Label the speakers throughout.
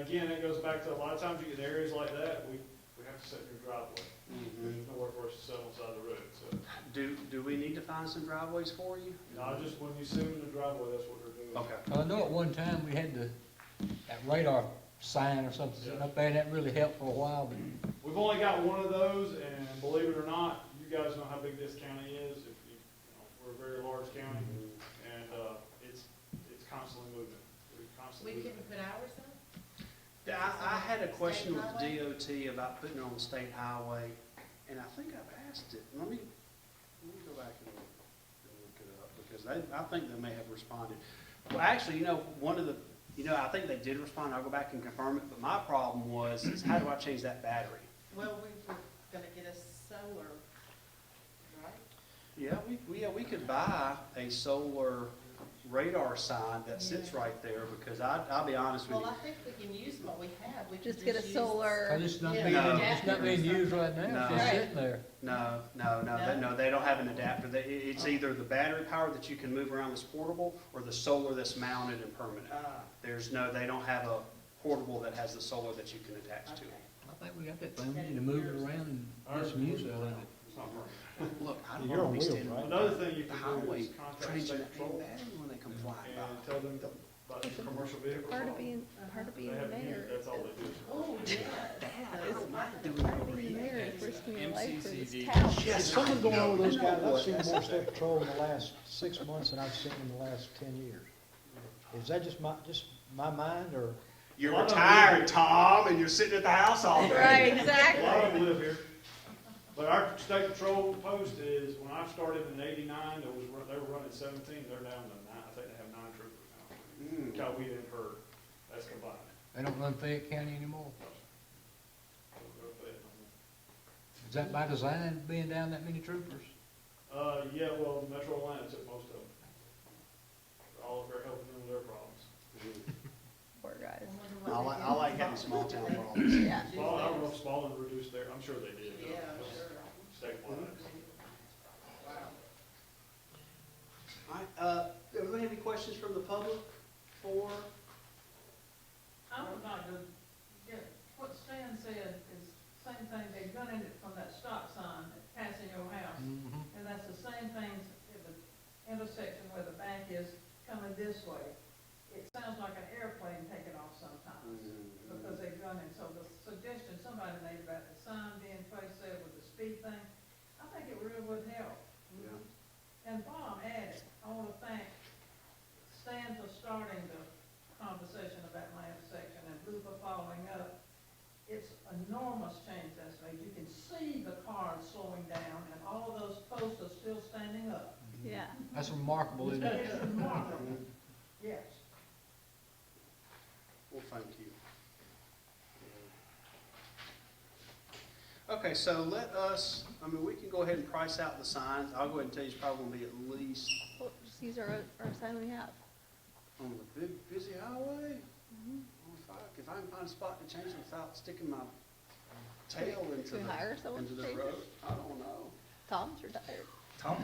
Speaker 1: Again, it goes back to, a lot of times you get in areas like that, we, we have to set your driveway. There's nowhere for us to set on the side of the road, so.
Speaker 2: Do, do we need to find some driveways for you?
Speaker 1: Not just when you sit in the driveway, that's what they're doing.
Speaker 2: Okay.
Speaker 3: I know at one time we had the, that radar sign or something sitting up there, and that really helped for a while, but
Speaker 1: We've only got one of those, and believe it or not, you guys know how big this county is. If you, you know, we're a very large county, and, uh, it's, it's constantly moving. We're
Speaker 4: We
Speaker 1: constantly moving.
Speaker 4: couldn't put ours up?
Speaker 2: Yeah, I, I had a question with the DOT about putting it on the state highway, and I think I've asked it, let me, let me go back and look it up, because they, I think they may have responded. Well, actually, you know, one of the, you know, I think they did respond, I'll go back and confirm it, but my problem was, is how do I change that battery?
Speaker 4: Well, we were gonna get a solar, right?
Speaker 2: Yeah, we, we, yeah, we could buy a solar radar sign that sits right there, because I, I'll be honest with
Speaker 4: Well,
Speaker 2: you.
Speaker 4: I think we can use what we have, we can
Speaker 5: Just get a
Speaker 4: use-
Speaker 3: I
Speaker 5: solar,
Speaker 3: just not
Speaker 4: Yeah.
Speaker 3: being,
Speaker 2: No.
Speaker 3: it's not being used right now, it's just
Speaker 5: No.
Speaker 3: sitting there.
Speaker 2: No, no, no, they, no, they don't have an adapter. They, it- it's either the battery power that you can move around that's portable, or the solar that's mounted and permanent.
Speaker 4: Ah,
Speaker 2: There's no, they don't have a portable that has the solar that you can attach to
Speaker 4: okay.
Speaker 2: it.
Speaker 3: I think we got that thing, we need to move it around and get some use out of it.
Speaker 1: It's not working.
Speaker 2: Look, I don't
Speaker 6: You're
Speaker 2: wanna
Speaker 6: on
Speaker 2: be
Speaker 6: wheels,
Speaker 2: standing
Speaker 6: right?
Speaker 2: on
Speaker 1: Another thing you
Speaker 2: the
Speaker 1: can do
Speaker 2: highway,
Speaker 1: is contact
Speaker 2: changing
Speaker 1: state
Speaker 2: that dang
Speaker 1: patrol
Speaker 2: battery when they come flying
Speaker 1: and
Speaker 2: by.
Speaker 1: tell them about your commercial vehicles.
Speaker 5: part of being, part of
Speaker 1: They
Speaker 5: being
Speaker 1: have a
Speaker 5: there.
Speaker 1: unit, That's all they do.
Speaker 4: Oh, yeah.
Speaker 2: Dad, I don't mind doing
Speaker 5: Part
Speaker 2: it
Speaker 5: of
Speaker 2: over
Speaker 5: being
Speaker 2: here.
Speaker 5: there is risking your life for this
Speaker 7: MCCD.
Speaker 5: town.
Speaker 6: There's something going on with those guys, I've seen
Speaker 2: That's-
Speaker 6: more state patrol in the last six months than I've seen in the last ten years. Is that just my, just my mind, or?
Speaker 2: You're retired, Tom, and you're sitting at the house all day.
Speaker 1: A
Speaker 5: Right,
Speaker 1: lot of
Speaker 5: exactly.
Speaker 1: them live here. But our state patrol post is, when I started in eighty-nine, there was, run- they were running seventeen, they're down to nine, I think they have nine troopers now.
Speaker 2: Mm.
Speaker 1: God, we didn't hurt, that's combined.
Speaker 3: They don't run Fayette County anymore. Is that by design, being down that many troopers?
Speaker 1: Uh, yeah, well, Metro Atlanta took most of them. All of their helping them with their problems.
Speaker 5: Poor
Speaker 4: I
Speaker 5: guys.
Speaker 4: wonder
Speaker 2: I
Speaker 4: what
Speaker 2: like,
Speaker 4: they
Speaker 2: I
Speaker 4: do.
Speaker 2: like having small town problems.
Speaker 5: Yeah.
Speaker 1: Spalding, I don't know if Spalding reduced their, I'm sure they did.
Speaker 4: Yeah, sure. Mm-hmm.
Speaker 1: Statewide.
Speaker 2: All right, uh, everybody have any questions from the public for?
Speaker 8: I'm not good, yeah, what Stan said is same thing, they gunning it from that stop sign that's passing your house.
Speaker 3: Mm-hmm.
Speaker 8: And that's the same thing at the intersection where the bank is coming this way. It sounds like an airplane taking off sometimes because they gun it. So the suggestion somebody made about the sign being placed there with the speed thing, I think it really would help.
Speaker 2: Yeah.
Speaker 8: And Bob added, I want to thank Stan for starting the conversation about my intersection and Lou for following up. It's enormous change that's made. You can see the cars slowing down and all those posts are still standing up.
Speaker 5: Yeah.
Speaker 3: That's remarkable, isn't it?
Speaker 8: It's remarkable. Yes.
Speaker 2: Well, thank you. Okay, so let us, I mean, we can go ahead and price out the signs. I'll go ahead and tell you it's probably gonna be at least
Speaker 5: Well, just use our, our sign we have.
Speaker 2: on the big, busy highway.
Speaker 5: Mm-hmm.
Speaker 2: Oh, If I, if I can find a spot to change it without sticking my tail into
Speaker 5: Should we
Speaker 2: the,
Speaker 5: hire someone
Speaker 2: into
Speaker 5: to
Speaker 2: the
Speaker 5: change
Speaker 2: road,
Speaker 5: it?
Speaker 2: I don't know.
Speaker 5: Tom's retired.
Speaker 2: Tom?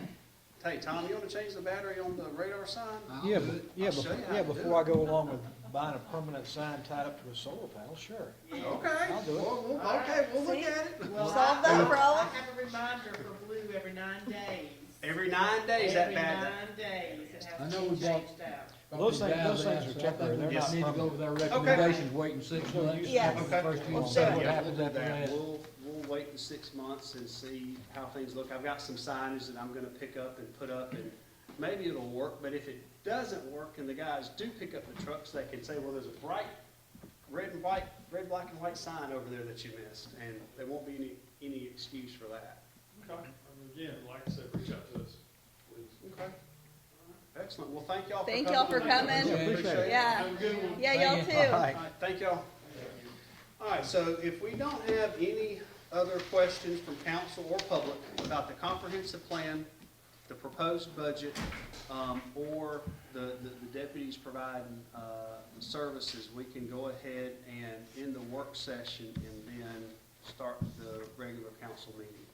Speaker 2: Hey, Tom, you wanna change the battery on the radar sign?
Speaker 3: I'll
Speaker 6: Yeah,
Speaker 3: do
Speaker 6: but,
Speaker 3: it.
Speaker 6: yeah,
Speaker 2: I'll show
Speaker 6: before,
Speaker 2: you how
Speaker 6: yeah,
Speaker 2: to do
Speaker 6: before I
Speaker 2: it.
Speaker 6: go along with buying a permanent sign tied up to a solar panel, sure.
Speaker 4: Yeah.
Speaker 2: Okay,
Speaker 6: I'll do it.
Speaker 2: well, we'll- okay, we'll look at it.
Speaker 4: Well, I-
Speaker 5: Solve that
Speaker 4: I-
Speaker 5: problem.
Speaker 4: I have a reminder for Blue every nine days.
Speaker 2: Every nine days, that
Speaker 4: Every
Speaker 2: bad.
Speaker 4: nine days, it
Speaker 3: I
Speaker 4: has to
Speaker 3: know
Speaker 4: be
Speaker 3: we got-
Speaker 4: changed out.
Speaker 6: Those things- those
Speaker 3: Probably
Speaker 6: things are
Speaker 3: dies out, so I think
Speaker 6: temporary, they're
Speaker 3: We just
Speaker 6: not
Speaker 3: need to go with our
Speaker 2: permanent.
Speaker 3: recommendations, waiting six
Speaker 6: There's no
Speaker 3: months.
Speaker 6: use
Speaker 5: Yes.
Speaker 3: after the
Speaker 2: Okay.
Speaker 3: First year,
Speaker 6: Well,
Speaker 3: see
Speaker 6: so-
Speaker 3: what
Speaker 2: Yeah, we'll
Speaker 3: happens
Speaker 2: do
Speaker 3: after
Speaker 2: that.
Speaker 3: that.
Speaker 2: We'll, we'll wait in six months and see how things look. I've got some signage that I'm gonna pick up and put up, and maybe it'll work, but if it doesn't work and the guys do pick up the trucks, they can say, well, there's a bright red and white, red, black and white sign over there that you missed, and there won't be any, any excuse for that.
Speaker 1: Okay, and again, like I said, reach out to us, please.
Speaker 2: Okay. Excellent. Well, thank y'all for coming.
Speaker 5: Thank y'all for
Speaker 2: Thank you.
Speaker 3: coming.
Speaker 2: Appreciate it.
Speaker 5: Yeah.
Speaker 1: Have a good one.
Speaker 5: Yeah, y'all
Speaker 3: Thank you.
Speaker 5: too.
Speaker 6: All right.
Speaker 2: All right, thank y'all. All right, so if we don't have any other questions from council or public about the comprehensive plan, the proposed budget, um, or the, the the deputies providing, uh, services, we can go ahead and end the work session and then start the regular council meeting.